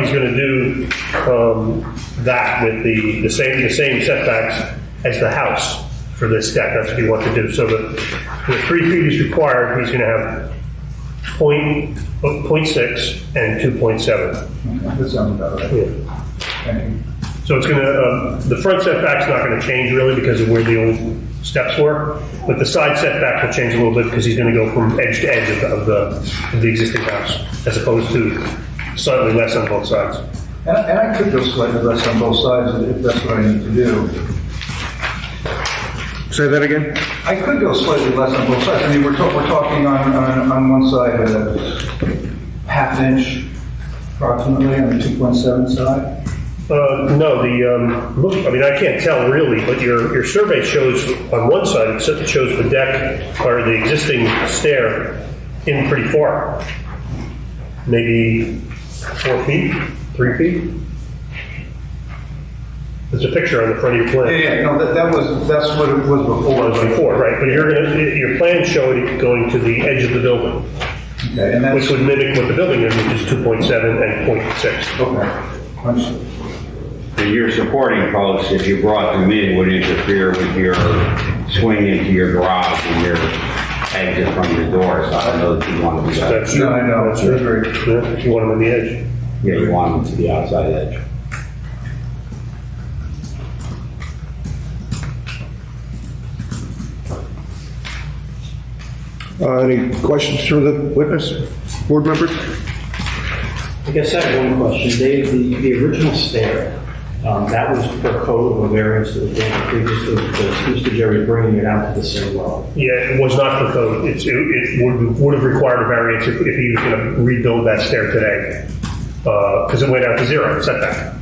he's gonna do, um, that with the, the same, the same setbacks as the house for this deck, that's what he wants to do, so the, the three feet is required, he's gonna have point, point six and two point seven. That sounds about right. Thank you. So it's gonna, uh, the front setback's not gonna change really because of where the old steps were, but the side setback will change a little bit because he's gonna go from edge to edge of the- of the, of the existing house, as opposed to slightly less on both sides. And and I could go slightly less on both sides if that's what I need to do. Say that again? I could go slightly less on both sides. I mean, we're talking, we're talking on, on, on one side of half inch approximately on the 2.7 side. Uh, no, the, um, look, I mean, I can't tell really, but your, your survey shows on one side, it sort of shows the deck or the existing stair in pretty far. Maybe four feet, three feet? There's a picture on the front of your Yeah, plan. yeah, no, that, that was, that's what it was before. Was before, right, but you're gonna, your plans show it going to the edge of the building, Okay, and which that's, would mimic what the building is, which is 2.7 and 0.6. okay. Understood. So your supporting posts, if you brought them in, would interfere with your swing into your garage and your exit from your door, so I don't know that you want to do that. That's No, I know, that's I agree. Yeah, You want them on the edge. Yeah, you want them to the outside edge. Uh, Any questions for the witness, board members? I guess I have one question. Dave, the, the original stair, um, that was per code of a variance that was granted previously because Mr. Jerry bringing it out to the same level. Yeah, it was not for code. It's, it, it would, would have required a variance if, if he was gonna rebuild that stair today. Uh 'cause cause it went out to zero setback.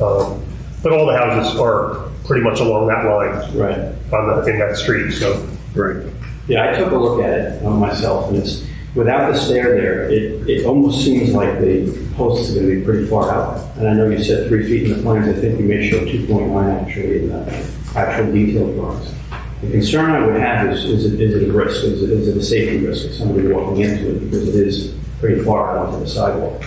Um, But all the houses are pretty much along that line Right. on the, in that street, so. Right. Yeah, I took a look at it um, myself and it's, without the stair there, it, it almost seems like the posts are gonna be pretty far out. And I know you said three feet in the plans. I think you may show two point one actually in the actual detailed drawings. The concern I would have is, is it, is it a risk? Is it, is it a safety risk of somebody walking into it? Because it is pretty far out onto the sidewalk.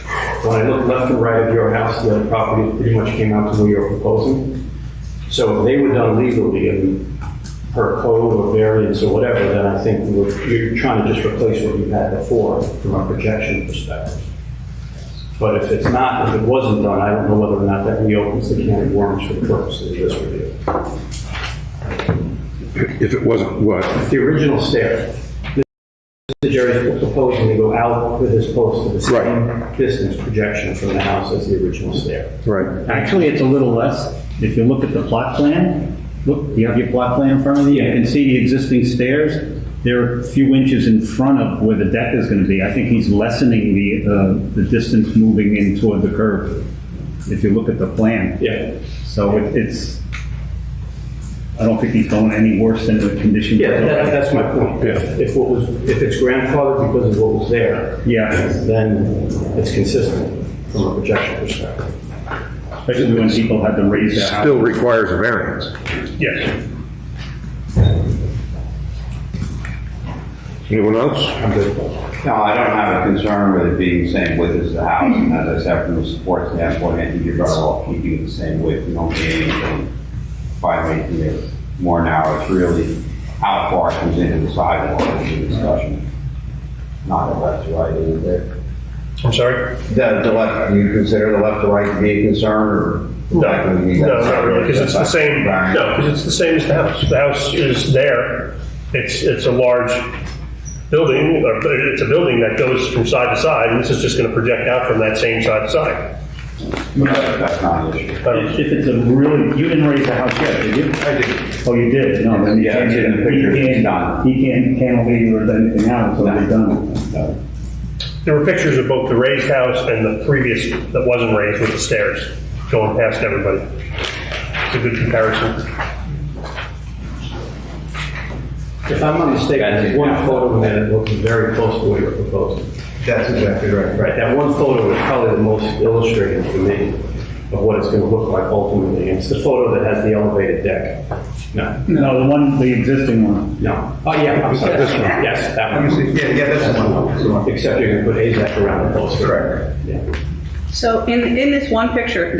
When I look left and right of your house, the other property pretty much came out to where you're proposing. So if they were done legally and per code or variance or whatever, then I think we would- you're trying to just replace what you had before from a projection perspective. But if it's not, if it wasn't done, I don't know whether or not that reopens the can of worms for the purpose of this review. If it wasn't, what? The original stair, Mr. Jerry's proposing to go out with his post to the same distance projection from the house as the original stair. Right. Actually, it's a little less. If you look at the plot plan, look, you have your plot plan in front of you, you can see the existing stairs. They're a few inches in front of where the deck is going to be. I think he's lessening the, uh, the distance moving in toward the curb, if you look at the plan. Yeah. So it- it's, I don't think he's going any worse than the condition. Yeah, that, that's my point. Yeah. If what was, if it's grandfathered because of what was there, Yeah, then it's consistent from a projection perspective. especially when people had to raise their house. Still requires a variance. Yes. Anyone else? No, I don't have a concern with it being the same width as the house, and as I said, from the support standpoint, I think you're better off keeping it the same width, you don't gain anything by making it more narrow, it's really how far it comes into the sidewalk is the discussion, not if that's right, is it? I'm sorry? The, the left, do you consider the left to right to be a concern, or? No, no, not really, because it's the same, Right. no, because it's the same as the house. The house is there, it's, it's a large building, or it's a building that goes from side to side, and this is just gonna project out from that same side to side. That's not an issue. I don't- If if it's a really, you didn't raise the house yet, did you? I do. Oh, you did? No, then you Yeah, can't. it's in the picture. He It's can't, done. he can't cantilever anything out until they're done. There were pictures of both the raised house and the previous that wasn't raised with the stairs going past everybody. It's a good comparison. If I'm not mistaken, there's one photo in there that looks very close to what you're proposing. That's exactly right. Right, that one photo is probably the most illustrative to me of what it's gonna look like ultimately. It's the photo that has the elevated deck. No, No, the one, the existing one. no. Oh, yeah, I'm sorry. This one. Yes, that Let me one. see. Yeah, yeah, that's the one. That's the one. Except you're gonna put AZAC around the post. Correct. Yeah. So in, in this one picture,